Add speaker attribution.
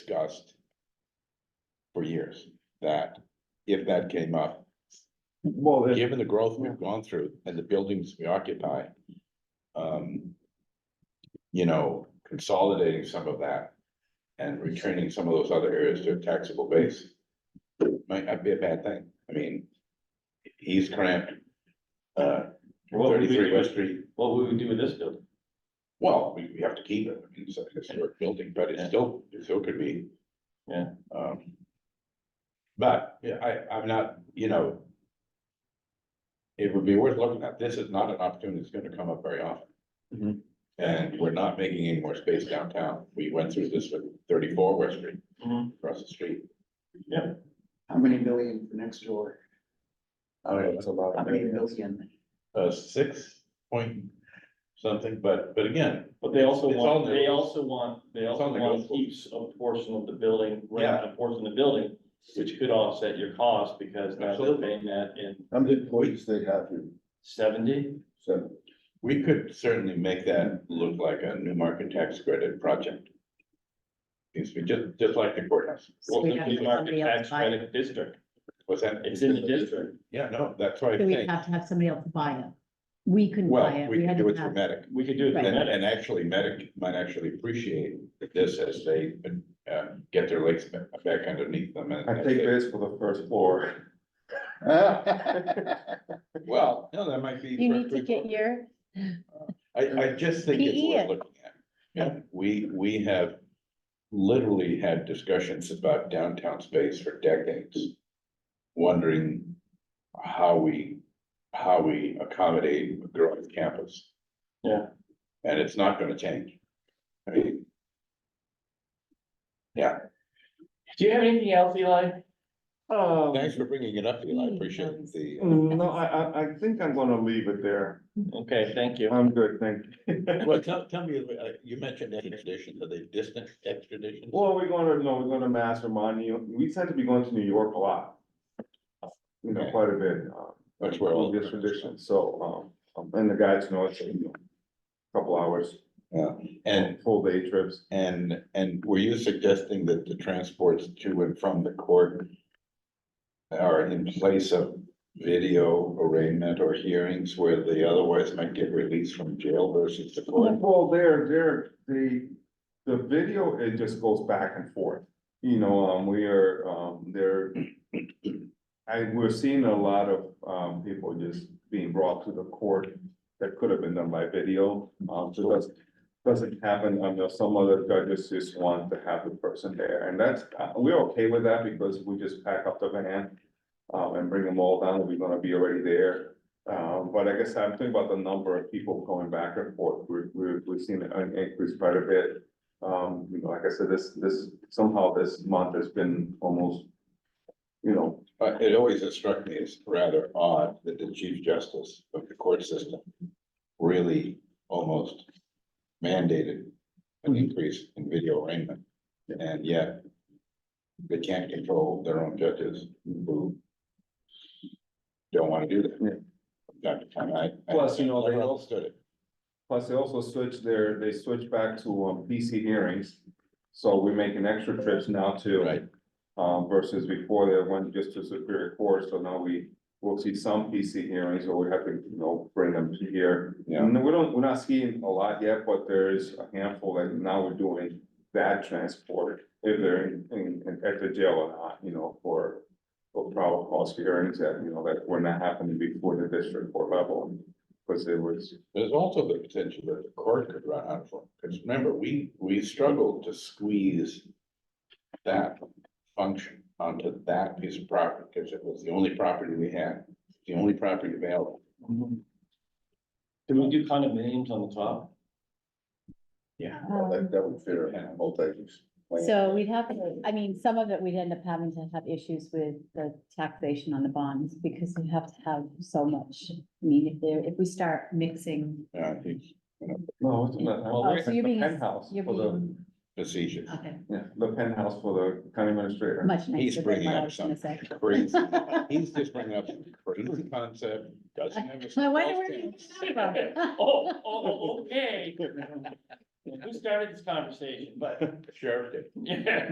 Speaker 1: discussed for years, that if that came up,
Speaker 2: Well, then,
Speaker 1: given the growth we've gone through and the buildings we occupy, um, you know, consolidating some of that and returning some of those other areas to a taxable base might not be a bad thing. I mean, he's cramped, uh,
Speaker 3: What would we
Speaker 1: thirty-three
Speaker 3: do
Speaker 1: West
Speaker 3: with,
Speaker 1: Street.
Speaker 3: what would we do with this building?
Speaker 1: Well, we, we have to keep it, I mean, it's a historic building, but it still, it still could be.
Speaker 3: Yeah.
Speaker 1: Um. But, yeah, I, I'm not, you know. It would be worth looking at, this is not an opportunity that's gonna come up very often.
Speaker 3: Mhm.
Speaker 1: And we're not making any more space downtown, we went through this with thirty-four West Street,
Speaker 3: Mhm.
Speaker 1: across the street.
Speaker 4: How many million for next door?
Speaker 1: Uh,
Speaker 2: Oh, a lot.
Speaker 4: How many million?
Speaker 1: uh, six point something, but, but again,
Speaker 3: But they also
Speaker 1: It's all
Speaker 3: want,
Speaker 1: new.
Speaker 3: they also want, they also
Speaker 1: all
Speaker 3: want to
Speaker 1: negotiable.
Speaker 3: keep a portion of the building, rent a portion of the building, which could offset your cost because now they're
Speaker 1: Absolutely.
Speaker 3: paying that in
Speaker 2: How many employees they have here?
Speaker 3: seventy.
Speaker 2: Seven.
Speaker 1: we could certainly make that look like a new market tax credit project. It's just, just like the courthouse.
Speaker 3: Well,
Speaker 5: we
Speaker 3: the
Speaker 5: have to
Speaker 3: new
Speaker 5: have
Speaker 3: market
Speaker 5: somebody else
Speaker 3: tax
Speaker 5: buy it.
Speaker 3: credit district,
Speaker 1: What's that?
Speaker 3: it's in the district.
Speaker 1: Yeah, no, that's why I
Speaker 5: So we'd
Speaker 1: think,
Speaker 5: have to have somebody else buy it. We couldn't buy
Speaker 1: well,
Speaker 5: it.
Speaker 1: we can
Speaker 5: had
Speaker 1: do
Speaker 5: to
Speaker 1: it through
Speaker 5: have-
Speaker 1: medic.
Speaker 3: We could do it.
Speaker 1: And,
Speaker 3: through Medic.
Speaker 1: and actually medic might actually appreciate this as they, uh, get their legs ba- back underneath them and.
Speaker 2: I take this for the first floor.
Speaker 1: Well, no, that might be.
Speaker 5: You
Speaker 1: for-
Speaker 5: need to get your,
Speaker 1: I, I just think it's
Speaker 5: PE
Speaker 1: worth
Speaker 5: it.
Speaker 1: looking at. Yeah, we, we have literally had discussions about downtown space for decades. Wondering how we, how we accommodate a growing campus.
Speaker 3: Yeah.
Speaker 1: And it's not gonna change. I mean,
Speaker 3: Do you have anything else, Eli?
Speaker 2: Um,
Speaker 1: thanks for bringing it up, Eli, I appreciate the. uh,
Speaker 2: no, I, I, I think I'm gonna leave it there.
Speaker 3: Okay, thank you.
Speaker 2: I'm good, thank you.
Speaker 1: Well, tell, tell me, uh, you mentioned extradition, are they distant extradition?
Speaker 2: Well, we're gonna, no, we're gonna mastermind, you know, we tend to be going to New York a lot. You know,
Speaker 1: Okay.
Speaker 2: quite a bit, uh,
Speaker 1: That's where all.
Speaker 2: this tradition, so, um, and the guys know it's, you know, couple hours,
Speaker 1: And
Speaker 2: full day trips.
Speaker 1: And, and were you suggesting that the transports to and from the court are in place of video arraignment or hearings where they otherwise might get released from jail versus the court?
Speaker 2: Well, they're, they're, the, the video, it just goes back and forth, you know, um, we are, um, there. I, we're seeing a lot of, um, people just being brought to the court that could have been done by video, um, so that's. Doesn't happen, I know some other judges just want to have the person there, and that's, uh, we're okay with that because we just pack up the van. Um, and bring them all down, we're gonna be already there, um, but I guess I'm thinking about the number of people going back and forth, we're, we're, we've seen an increase quite a bit. Um, you know, like I said, this, this, somehow this month has been almost, you know,
Speaker 1: Uh, it always has struck me as rather odd that the chief justice of the court system really almost mandated an increase in video arraignment. And yet they can't control their own judges who don't want to do that.
Speaker 2: Yeah.
Speaker 1: From time to time, I. I-
Speaker 2: Plus, you know, they
Speaker 1: I never
Speaker 2: don't-
Speaker 1: understood it.
Speaker 2: plus they also switch their, they switch back to, um, PC hearings. So we're making extra trips now too.
Speaker 1: Right.
Speaker 2: Um, versus before they went just to Superior Court, so now we, we'll see some PC hearings, or we have to, you know, bring them to here.
Speaker 1: Yeah.
Speaker 2: And we don't, we're not seeing a lot yet, but there's a handful that now we're doing that transport, if they're in, in, in- at the jail or not, you know, for. For probable cause hearings that, you know, that were not happening before the district court level, because it was,
Speaker 1: There's also the potential that the court could run out of, because remember, we, we struggled to squeeze that function onto that piece of property, because it was the only property we had, the only property available.
Speaker 3: Mhm. Can we do condominiums on the top?
Speaker 5: um,
Speaker 1: that would fit our multi-use.
Speaker 5: so we'd have, I mean, some of it we'd end up having to have issues with the taxation on the bonds because we have to have so much. I mean, if there, if we start mixing,
Speaker 1: Yeah, I think
Speaker 2: no, it's not.
Speaker 3: Well,
Speaker 5: Oh, so you're being-
Speaker 2: The penthouse
Speaker 5: you're
Speaker 2: for the,
Speaker 5: being,
Speaker 1: facetious.
Speaker 5: okay,
Speaker 2: yeah, the penthouse for the county administrator.
Speaker 5: much
Speaker 1: He's
Speaker 5: nicer than
Speaker 1: bringing
Speaker 5: what I
Speaker 1: up
Speaker 5: was gonna
Speaker 1: something
Speaker 5: say.
Speaker 1: crazy. He's just bringing up some crazy concept, doesn't have. a
Speaker 5: I wonder where you
Speaker 1: golf
Speaker 5: got it from.
Speaker 3: Oh, oh, okay. Who started this conversation, but
Speaker 1: team. Sheriff did.
Speaker 3: yeah.